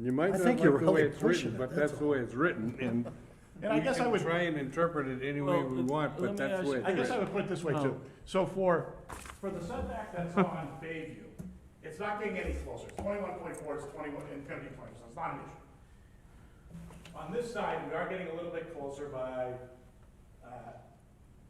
You might I not think like you're the way really it's written, pushing it, but that's that's the way it's written, and. And I we guess I can was- Try and interpret it any way Well, we let- want, let but me that's the way ask- I it's guess I written. would put it this way Oh. too. So for, for the setback that's on Bayview, it's not getting any closer. Twenty-one point four is twenty-one, and gonna be twenty, so it's not an issue. On this side, we are getting a little bit closer by, uh,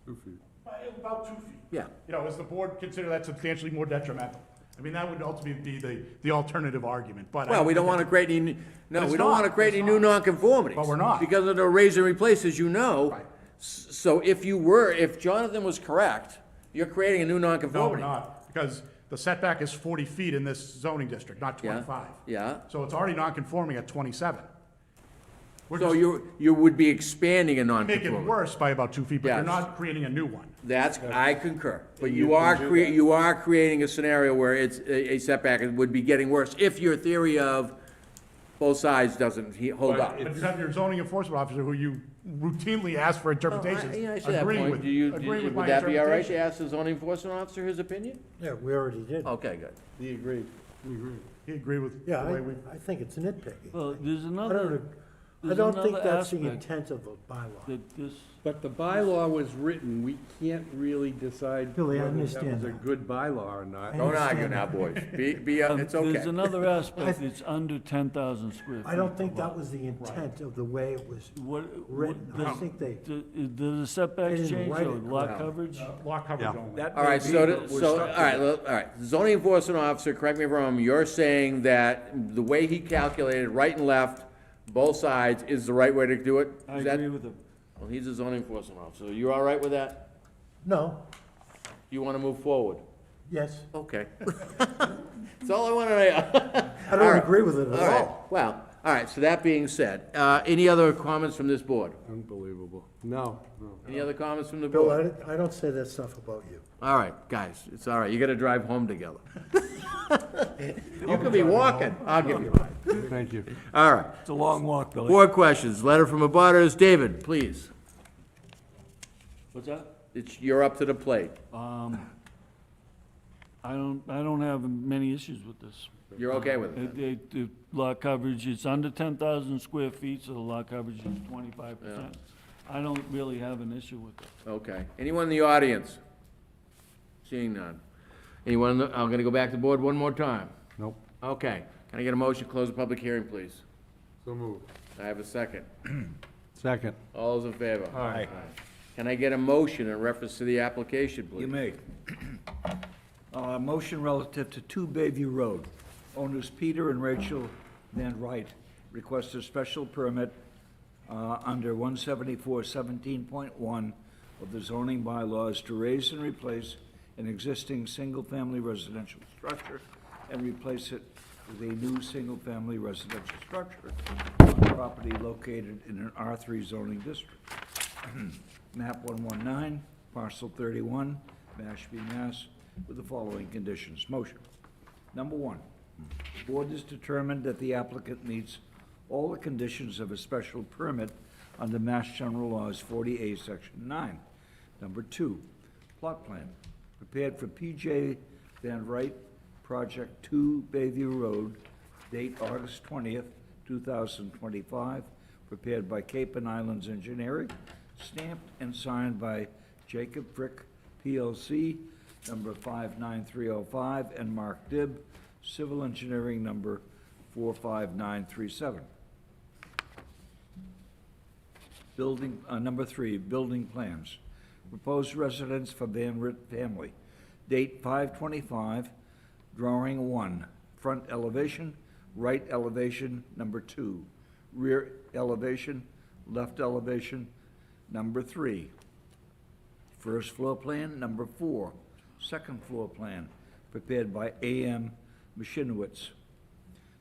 Two feet. by about two feet. Yeah. You know, does the board consider that substantially more detrimental? I mean, that would ultimately be the, the alternative argument, but. I Well, we don't think want to create any, But no, it's we don't not, want to create it's any new nonconformities. But we're not. Because of the raise and replace, as you know. Right. S- So if you were, if Jonathan was correct, you're creating a new No, we're nonconformity. not, because the setback is forty feet in this zoning district, not Yeah, twenty-five. Yeah, So it's already non-conforming at twenty-seven. We're so just you, you would be expanding a making it nonconformity. worse by about two feet, but you're Yes. not creating a new one. That's, I concur, but You you are can do crea, that. you are creating a scenario where it's, a a setback would be getting worse if your theory of both sides doesn't he- hold But up. But you have your zoning enforcement officer who you routinely ask for interpretations, Oh, Yeah, I see that agreeing point. with, Do you- do agreeing you- with my Would that be all right to interpretation. ask the zoning enforcement officer his opinion? Yeah, we already did. Oh. Okay, good. He agreed, he agreed. He agreed with the Yeah, way we, I, I think it's nitpicking. Well, there's I don't, another, ag- I there's don't think another that's the aspect intent of a bylaw. that this, But the bylaw was written, we can't really decide Billy, I whether that understand was a that. good bylaw or not. I Don't argue understand now, boys. Be, be, uh, um, it's there's okay. another aspect, it's under ten thousand square feet. I don't think that was the intent of the way it was What, what, written. I does, think they, do- do the setbacks didn't change, write though? it lot correctly. coverage? uh, lot coverage only. All right, so, th- so, all right, look, all right. Zoning enforcement officer, correct me if I'm wrong, you're saying that the way he calculated right and left, both sides, is the right way to do it? I Is that- agree with him. Well, he's a zoning enforcement officer. You all right with that? no, You want to move forward? yes, Okay. That's all I wanted to know. I All don't right. agree with it All at right, all. well, all right, so that being said, uh, any other comments from this board? Unbelievable. No, no. Any other comments from the Bill, board? I, I don't say that stuff about you. All right, guys, it's all right, you gotta drive home together. You could be walking, I'll give you a ride. Thank you. All right, It's a long walk, Billy. board questions, letter from a butters, David, please. What's that? It's, you're up to the plate, Um, I don't, I don't have many issues with this. you're okay with Uh, it? The, the lot coverage, it's under ten thousand square feet, so the lot coverage is twenty-five percent. I don't really have an issue with it. Okay, anyone in the audience? Seeing none. Anyone, in the- I'm gonna go back to the board one more time. Nope, Okay, can I get a motion, to close the public hearing, please? so moved. I have a second. Second. All those in favor? Aye. Can I get a motion in reference to the application, please? You may. Uh, Motion relative to 2 Bayview Road. Owners Peter and Rachel Van Wright request a special permit uh, under 174-17.1 of the zoning bylaws to raise and replace an existing single-family residential structure and replace it with a new single-family residential structure on property located in an R3 zoning district map 119, parcel 31, Mashpee, Mass, with the following conditions. Motion. Number one, the board has determined that the applicant meets all the conditions of a special permit under Mass General Laws 40A, Section 9. Number two, plot plan, prepared for PJ Van Wright, Project 2 Bayview Road, date August 20th, 2025, prepared by Cape and Islands Engineering, stamped and signed by Jacob Frick, PLC, number 59305, and Mark Dibb, Civil Engineering, number 45937. Building, uh, number three, building plans. Proposed residence for Van Ritt family. Date five twenty-five, drawing one. Front elevation, right elevation, number two. Rear elevation, left elevation, number three. First floor plan, number four. Second floor plan, prepared by A.M. Mashinowitz.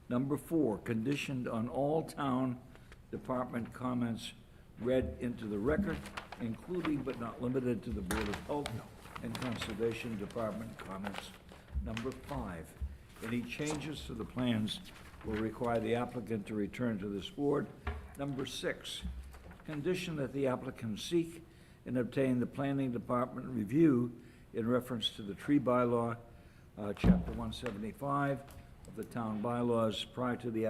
Number four, conditioned on all town department comments read into the record, including but not limited to the Board of Health and Conservation Department comments. Number five, any changes to the plans will require the applicant to return to this board. Number six, condition that the applicant seek and obtain the planning department review in reference to the tree bylaw, uh, chapter one seventy-five of the town bylaws prior to the